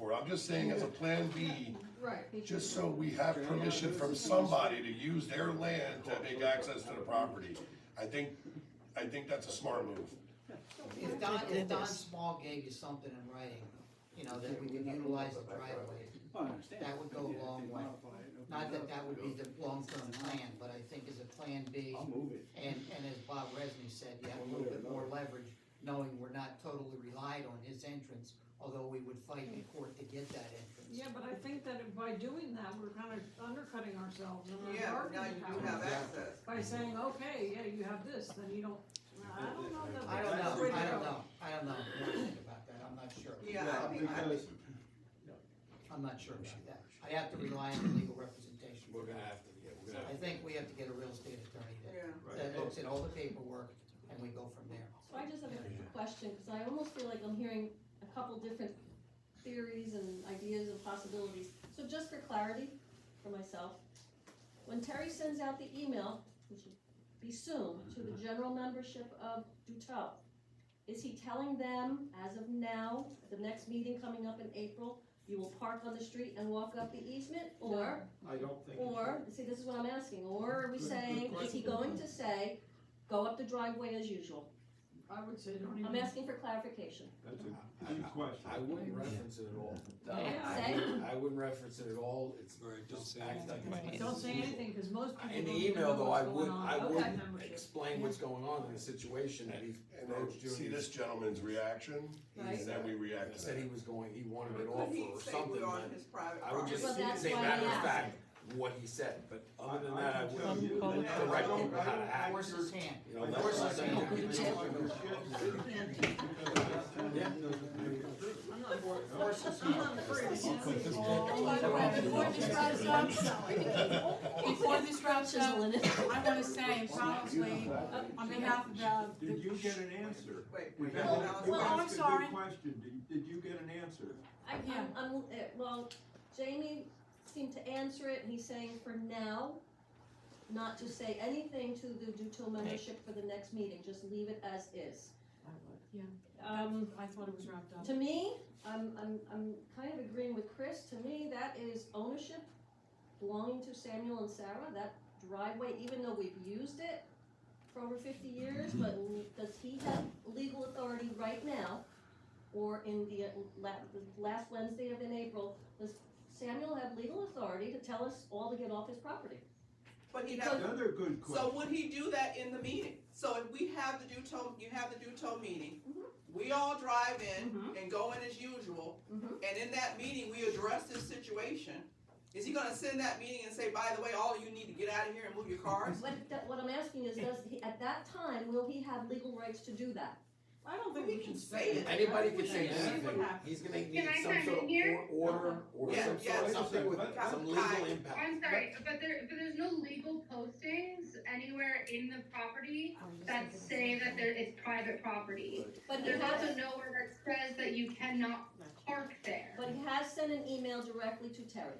I'm just saying as a plan B, Right. just so we have permission from somebody to use their land to make access to the property. I think, I think that's a smart move. If Don, if Don Small gave you something in writing, you know, that we can utilize the driveway, Oh, I understand. That would go a Yeah, if long they way. modify it, open not it that up, that would be the long-term plan, but I think as a plan B, I'll move it. and, and as Bob Resney said, you have a little bit more leverage, knowing we're not totally relied on his entrance, although we would fight in court to get that Yeah, entrance. but I think that if by doing that, we're kind of undercutting ourselves and Yeah, our now bargaining you do power. have access. By saying, okay, yeah, you have this, then you don't, I don't know that. I don't that's the way know, to I don't go. know, I don't know what to think about that, I'm not sure. Yeah, I mean, I, Because I'm not sure about that, I'd have to rely on legal representation. we're gonna have to, yeah, we're gonna I have to. think we have to get a real estate attorney that, yeah, that looks at all the paperwork, and we go from there. So I just have a quick question, because I almost feel like I'm hearing a couple different theories and ideas and possibilities. So just for clarity for myself, when Terry sends out the email, which would be soon, to the general membership of Duto, is he telling them as of now, at the next meeting coming up in April, you will park on the street and walk up the easement? Or I don't think. or, see, this is what I'm asking, or are we Good- saying, good is he going to say, go up the driveway as usual? I would say don't even. I'm asking for clarification. That's I- a good question. I wouldn't reference it at all. Yeah. I wouldn't, I wouldn't reference it at all, it's just act like it's business Don't as say usual. anything, cause most people. In don't the even know email though, I what's would, going on. I Okay, would membership. explain what's going on in the situation that he And approached then you. see this gentleman's reaction, and then we react to Said he that. was going, he wanted it but he offer or say something, we're on but his private I would property. just Well, that's say why I matter of asked. fact, what he said, but other than that, I can tell wouldn't. you Call that it I direct don't- him I how to don't- act or- Horses can't. You know, I that's don't what I'm think saying. you can talk about shit. Yeah. I'm not Horses I'm not afraid. Oh, By the way, before this route stops, before this route stops, Chiseling it. I wanna say probably on behalf of uh, the. Did you get an answer? Wait, We wait, had- hold Well, on. you well, asked I'm a good sorry. Question, did, did you get an answer? I, I'm, I'm, uh, well, Jamie seemed to answer it, and he's saying for now, not to say anything to the Duto membership for the next meeting, just leave it as is. Yeah. Um, I thought it was wrapped up. To me, I'm, I'm, I'm kind of agreeing with Chris, to me, that is ownership belonging to Samuel and Sarah, that driveway, even though we've used it for over fifty years, but l- does he have legal authority right now? Or in the uh, la- the last Wednesday of in April, does Samuel have legal authority to tell us all to get off his property? But he doesn't, Another good so question. would he do that in the meeting? So if we have the Duto, you have the Duto meeting, we all drive in and go in as usual, Mhm. and in that meeting, we address this situation. Is he gonna send that meeting and say, by the way, all of you need to get out of here and move your cars? What, that, what I'm asking is, does he, at that time, will he have legal rights to do that? I don't think We we can should say say it. it. Anybody could say See what anything, happens. he's gonna need some sort of or- order or Yeah, some yeah. sort, something with Wait a some second. legal Hi. impact. I'm sorry, but there, but there's no legal postings anywhere in the property Oh, that say that there, it's private property. But he There's also has, nowhere that says that you cannot park there. but he has sent an email directly to Terry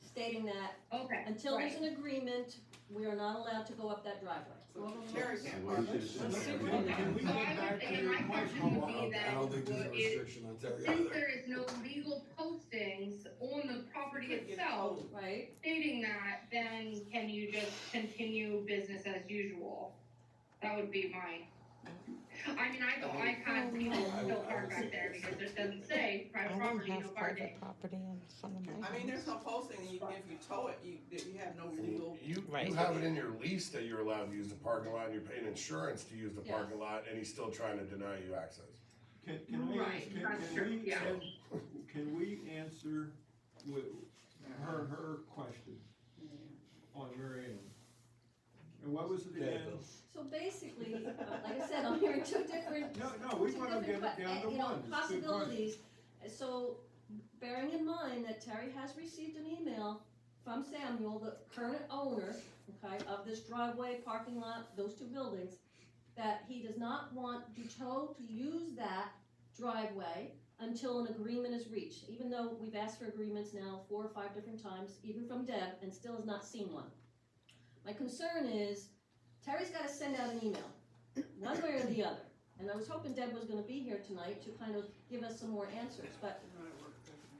stating that Okay, Until there's right. an agreement, we are not allowed to go up that driveway. So Terry can't park. Can can we So get I would back say to your my question? I question would don't- be I that don't think there's a would it- restriction on Terry since either. there is no legal postings on the property itself Right. stating that, then can you just continue business as usual? That would be mine. I mean, I, Um, I've had um, people still park back there because it doesn't say private property, no parking. property in front of I mean, there's no posting, and you, if you tow it, you, you have no legal. You, Right. you have it in your lease that you're allowed to use the parking lot, and you're paying insurance to use the Yes. parking lot, and he's still trying to deny you access. Can, can we, Right, ask- can, that's can true, we, yeah. can, can we answer with her, her question on your end? And what was it Yeah, again? Bill. So basically, uh, like I said, I'm hearing two different, two No, no, we wanna get different, it que- down to uh, you know, one. It's a good question. possibilities. So bearing in mind that Terry has received an email from Samuel, the current owner, okay, of this driveway, parking lot, those two buildings, that he does not want Duto to use that driveway until an agreement is reached, even though we've asked for agreements now four or five different times, even from Deb, and still has not seen one. My concern is Terry's gotta send out an email, one way or the other. And I was hoping Deb was gonna be here tonight to kind of give us some more answers, but